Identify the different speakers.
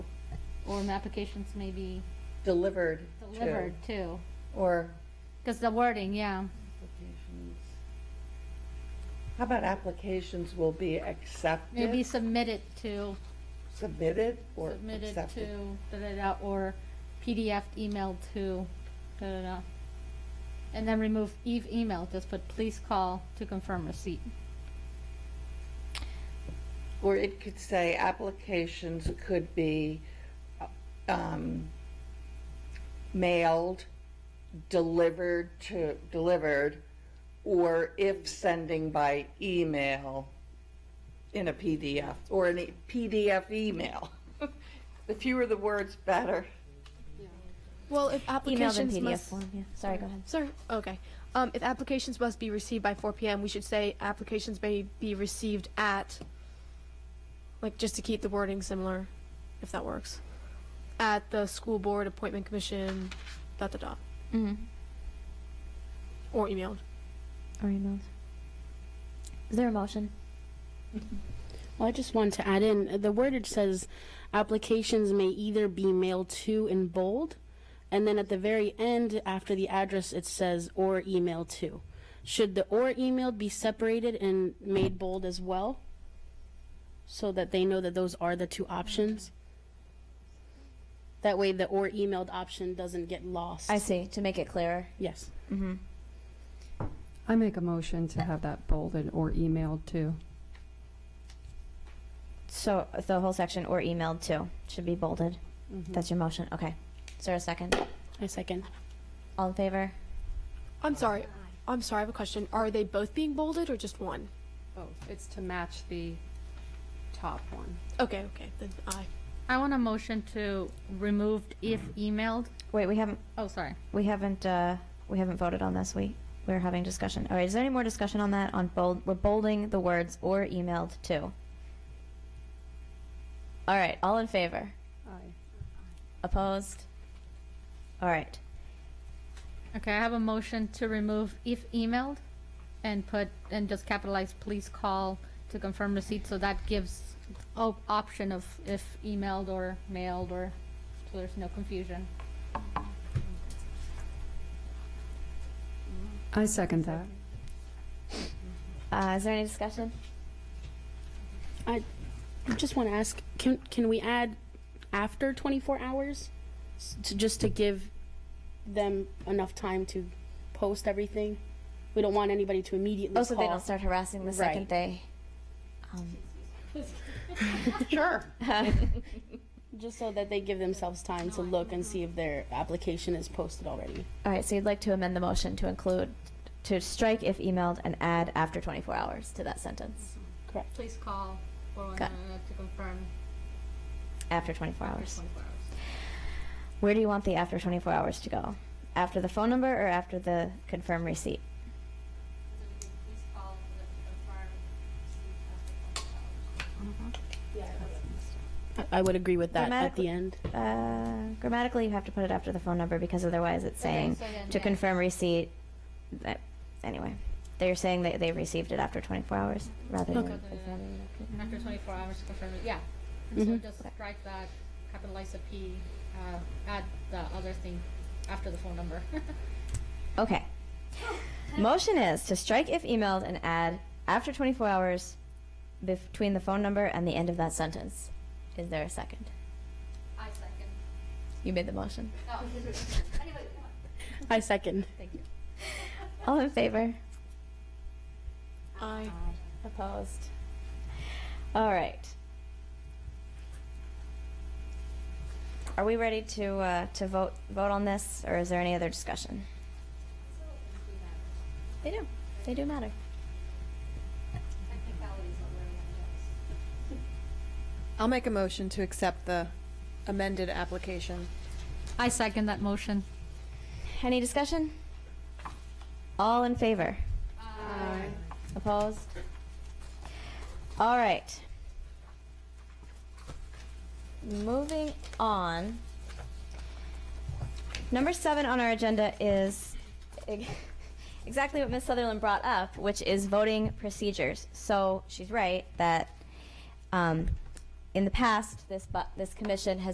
Speaker 1: form applications may be
Speaker 2: delivered to.
Speaker 1: delivered too.
Speaker 2: Or
Speaker 1: Because the wording, yeah.
Speaker 2: applications. How about applications will be accepted?
Speaker 1: Maybe submitted to,
Speaker 2: Submitted or
Speaker 1: submitted to,
Speaker 2: accepted?
Speaker 1: da-da-da, or PDF emailed to, da-da-da. And then remove Eve email, just put please call to confirm receipt.
Speaker 2: Or it could say applications could be um, mailed, delivered to, delivered, or if sending by email in a PDF, or in a PDF email. The fewer the words, better.
Speaker 3: Well, if
Speaker 4: Emailed in
Speaker 3: applications
Speaker 4: PDF
Speaker 3: must,
Speaker 4: form. Yeah. Sorry, go ahead.
Speaker 3: sorry, okay. Um, if applications must be received by 4 p.m., we should say applications may be received at, like, just to keep the wording similar, if that works. At the school board appointment commission, dot dot dot,
Speaker 1: Mm.
Speaker 3: or emailed.
Speaker 4: Or emailed. Is there a motion?
Speaker 5: Well, I just want to add in uh, the wordage says applications may either be mailed to in bold, and then at the very end, after the address, it says or email to. Should the or emailed be separated and made bold as well? So that they know that those are the two options? That way, the or emailed option doesn't get lost.
Speaker 4: I see. Mm-hmm. To make it clearer.
Speaker 5: Yes.
Speaker 6: I make a motion to have that bolded or emailed to.
Speaker 4: So the whole section or emailed to should be bolded. That's your motion. Okay. Is there a second?
Speaker 5: I second.
Speaker 4: All in favor?
Speaker 3: I'm sorry. I'm sorry. I have a question. Are they both being bolded or just one?
Speaker 7: Oh, it's to match the top one.
Speaker 3: Okay, okay. Then I.
Speaker 1: I want a motion to remove if emailed,
Speaker 4: Wait, we haven't
Speaker 1: oh, sorry.
Speaker 4: we haven't uh, we haven't voted on this. We we're having discussion. All right. Is there any more discussion on that? On bold, we're bolding the words or emailed to. All right. All in favor?
Speaker 7: Aye.
Speaker 4: Opposed? All right.
Speaker 1: Okay, I have a motion to remove if emailed and put, and just capitalize, please call to confirm receipt, so that gives op- option of if emailed or mailed or, so there's no confusion.
Speaker 6: I second that.
Speaker 4: Uh, is there any discussion?
Speaker 5: I just want to ask, can, can we add after 24 hours? S- To, just to give them enough time to post everything? We don't want anybody to immediately
Speaker 4: Oh, so they
Speaker 5: call.
Speaker 4: don't start harassing the second
Speaker 5: Right.
Speaker 4: they. Um,
Speaker 2: Sure.
Speaker 5: Just so that they give themselves time to look and see if their application is posted already.
Speaker 4: all right. So you'd like to amend the motion to include to strike if emailed and add after 24 hours to that sentence.
Speaker 5: Correct.
Speaker 1: Please call for one
Speaker 4: Got it.
Speaker 1: to confirm
Speaker 4: After 24 hours.
Speaker 1: twenty-four hours.
Speaker 4: Where do you want the after 24 hours to go? After the phone number or after the confirm receipt?
Speaker 1: Please call Uh-huh.
Speaker 5: I, I would agree with that at
Speaker 4: Dramatically-
Speaker 5: the end.
Speaker 4: Uh, grammatically, you have to put it after the phone number because otherwise it's saying
Speaker 1: so then,
Speaker 4: to
Speaker 1: yeah.
Speaker 4: confirm receipt. That, anyway, they're saying that they received it after 24 hours rather than.
Speaker 1: After twenty-four hours to confirm, it. yeah. And so just strike that, capitalize the P, uh, add the other thing after the phone number.
Speaker 4: Okay. Motion is to strike if emailed and add after 24 hours between the phone number and the end of that sentence. Is there a second?
Speaker 1: I second. Oh.
Speaker 4: You made the motion.
Speaker 5: I second.
Speaker 4: All in favor?
Speaker 3: I.
Speaker 4: Opposed. All right. Are we ready to uh, to vote vote on this, or is there any other discussion? They do. They do matter.
Speaker 8: I'll make a motion to accept the amended application.
Speaker 1: I second that motion.
Speaker 4: Any discussion? All in favor? Opposed? All right. Moving on. Number seven on our agenda is ex- exactly what Ms. Sutherland brought up, which is voting procedures. So she's right that um, in the past, this, bu- this commission has